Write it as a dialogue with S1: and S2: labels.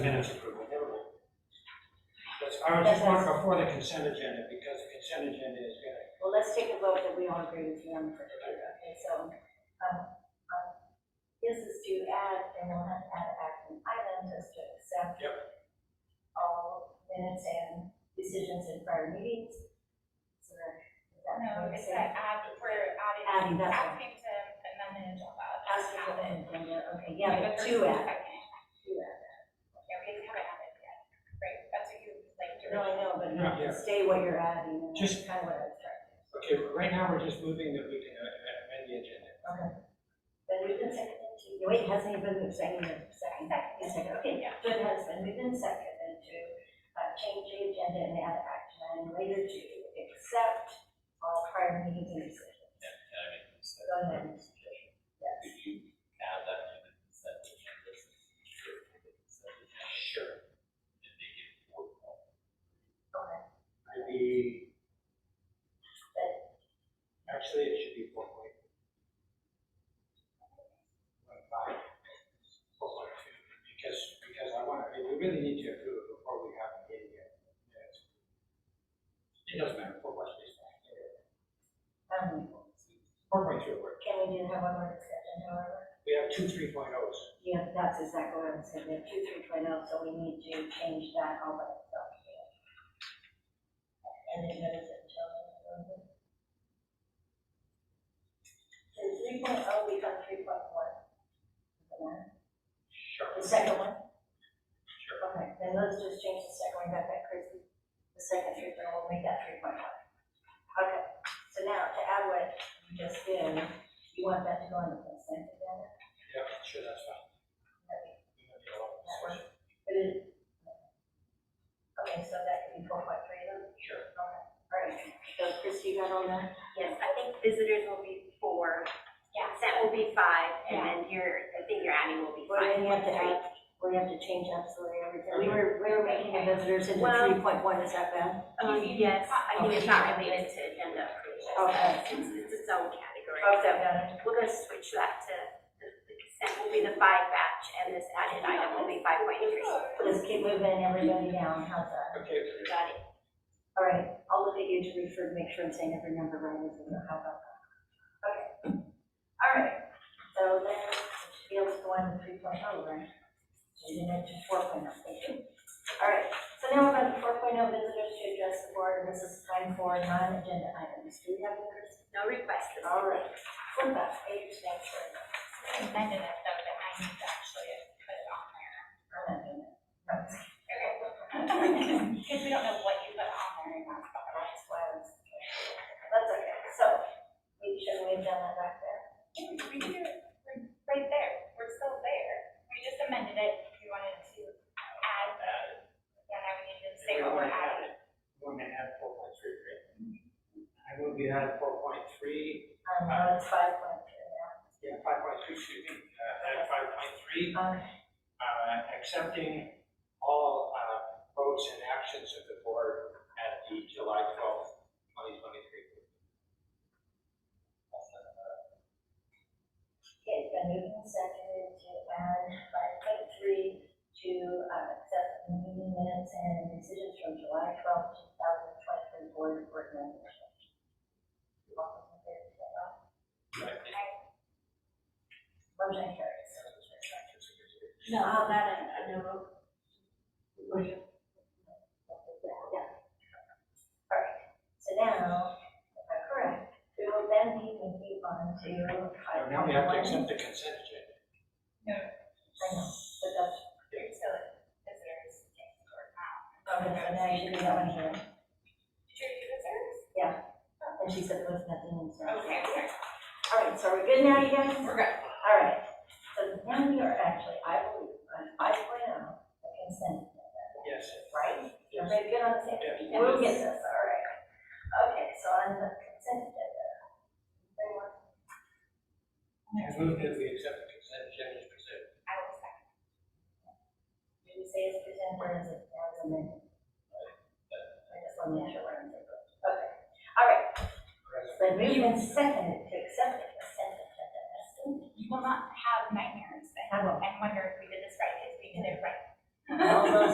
S1: is approved, never mind. That's, I was just wanting before the consent agenda, because the consent agenda is gonna,
S2: Well, let's take a vote that we all agree with you on the first page, okay, so, um, um, this is to add, and we'll have to add action item just to accept all minutes and decisions in prior meetings. So that- that
S3: No,
S2: makes
S3: it's
S2: sense.
S3: that add, we're
S2: Adding,
S3: adding,
S2: that's right.
S3: asking to amend the agenda.
S2: Ask
S3: Add
S2: for
S3: it.
S2: an agenda, okay, yeah,
S3: The
S2: but
S3: first
S2: two
S3: and
S2: add,
S3: second.
S2: two add.
S3: Yeah, we haven't added yet. Right, that's what you like to.
S2: No, I know, but
S1: Yeah, yeah.
S2: stay what you're adding, and that's
S1: Just-
S2: kind of what I was trying to.
S1: okay, but right now, we're just moving that we can uh, amend the agenda.
S2: Then we've been seconded to, no, wait, hasn't even been seconded, second, second, second, okay.
S3: Yeah.
S2: So it has been moved and seconded to uh, change the agenda and add action item later to accept all prior meetings and decisions.
S4: Can I make a
S2: Go ahead.
S4: suggestion?
S2: Yes.
S4: Could you add that to the consent agenda? since it's your consent agenda?
S1: Sure.
S4: And make it more formal.
S2: Okay.
S1: I'd be, actually, it should be four point. One five. Four point two, because, because I want, I mean, we really need to approve it before we have a meeting yet. Yes. It doesn't matter, four point three is fine.
S2: Um,
S1: Four point two works.
S2: Can we do have one more discussion, however?
S1: We have two three point ohs.
S2: Yeah, that's exactly what I'm saying, there are two, three point oh, so we need to change that all by itself. here. And then what is it, children? So three point oh becomes three point one.
S1: Sure.
S2: The second one?
S1: Sure.
S2: Okay, then let's just change the second one, got that crazy. The second three point, we'll make that three point one. Okay, so now to add what you just did, you want that to go on the consent agenda?
S1: Yeah, sure, that's fine.
S2: Okay,
S1: We don't need a lot of
S2: That
S1: discussion.
S2: But it, okay, so that could be four point three then?
S1: Sure.
S2: Okay, all right, so Chris, you got all that?
S5: Yes, I think visitors will be four,
S3: Yeah.
S5: consent will be five, and then your, I think your adding will be
S2: Well,
S5: five.
S2: then you have to
S5: Three.
S2: add, we have to change absolutely everything. We were, we were making the visitors into
S5: Well-
S2: three point one, is that bad?
S5: Um, yes, I think it's not related to agenda approval.
S2: Okay.
S5: It's, it's its own category.
S2: got it.
S5: We're gonna switch that to, the the consent will be the five batch, and this added item will be five point three.
S2: Let's keep moving everybody down, how's that?
S1: Okay,
S5: Got it?
S2: All right, I'll look at you to refer, to make sure I'm saying every number right, as we know how about that. Okay. All right, so then, fields one, three point oh, right? And then to four point oh, thank you. All right, so now we're going to four point oh, visitors to address the board, this is time for non-agenda items. Do we have any, Chris?
S5: No requests. this
S2: All
S5: evening.
S2: right, flip that page, thanks for
S3: Amended it though, but I need to actually put it on there.
S2: That's
S3: Because we don't know what you put on there. and that's fine.
S2: why I was. That's okay, so, we should, we've done that back there.
S3: We do, we're right there, we're still there. We just amended it, we wanted to add, yeah, now we need to say what we're adding.
S1: We're gonna add four point three, right? I move we add four point three,
S2: Um, no, it's five point three now.
S1: yeah, five point three, excuse me, uh, add five point three,
S2: Okay.
S1: uh, accepting all, uh, votes and actions of the board at the July twelfth, twenty twenty-three.
S2: Okay, it's been moved and seconded to add five point three to, uh, accept the meeting minutes and decisions from July twelfth, two thousand twenty-three board of board members. All those in favor, say aye. Motion carries. No, I'm not, I know. Yeah. All right, so now, if I'm correct, we will then be moving on to five
S1: So
S2: point one.
S1: Oh, now we have to accept the consent agenda.
S2: I know, but that's
S3: You're still at visitors. or not.
S2: Okay, so now you should do that one here.
S3: Did you do visitors?
S2: And she said there was nothing in there.
S3: Okay, okay.
S2: All right, so we're good now, you guys?
S3: We're good.
S2: All right. So now we are actually, I believe, on five point oh, the consent agenda,
S1: Yes.
S2: right?
S1: Yes.
S2: Everybody good on the same page?
S1: Yes.
S2: We'll get this, all right. Okay, so on the consent agenda. anyone
S1: I move that we accept the consent agenda as presented.
S3: I will second.
S2: Did we say it's presented or is it as amended? I just want to make sure we're on the book. Okay, all right. So then moved and seconded to accept the consent agenda as stated.
S3: You will not have nightmares then
S2: I will.
S3: and wonder if we did this right, because we did it right.
S2: All those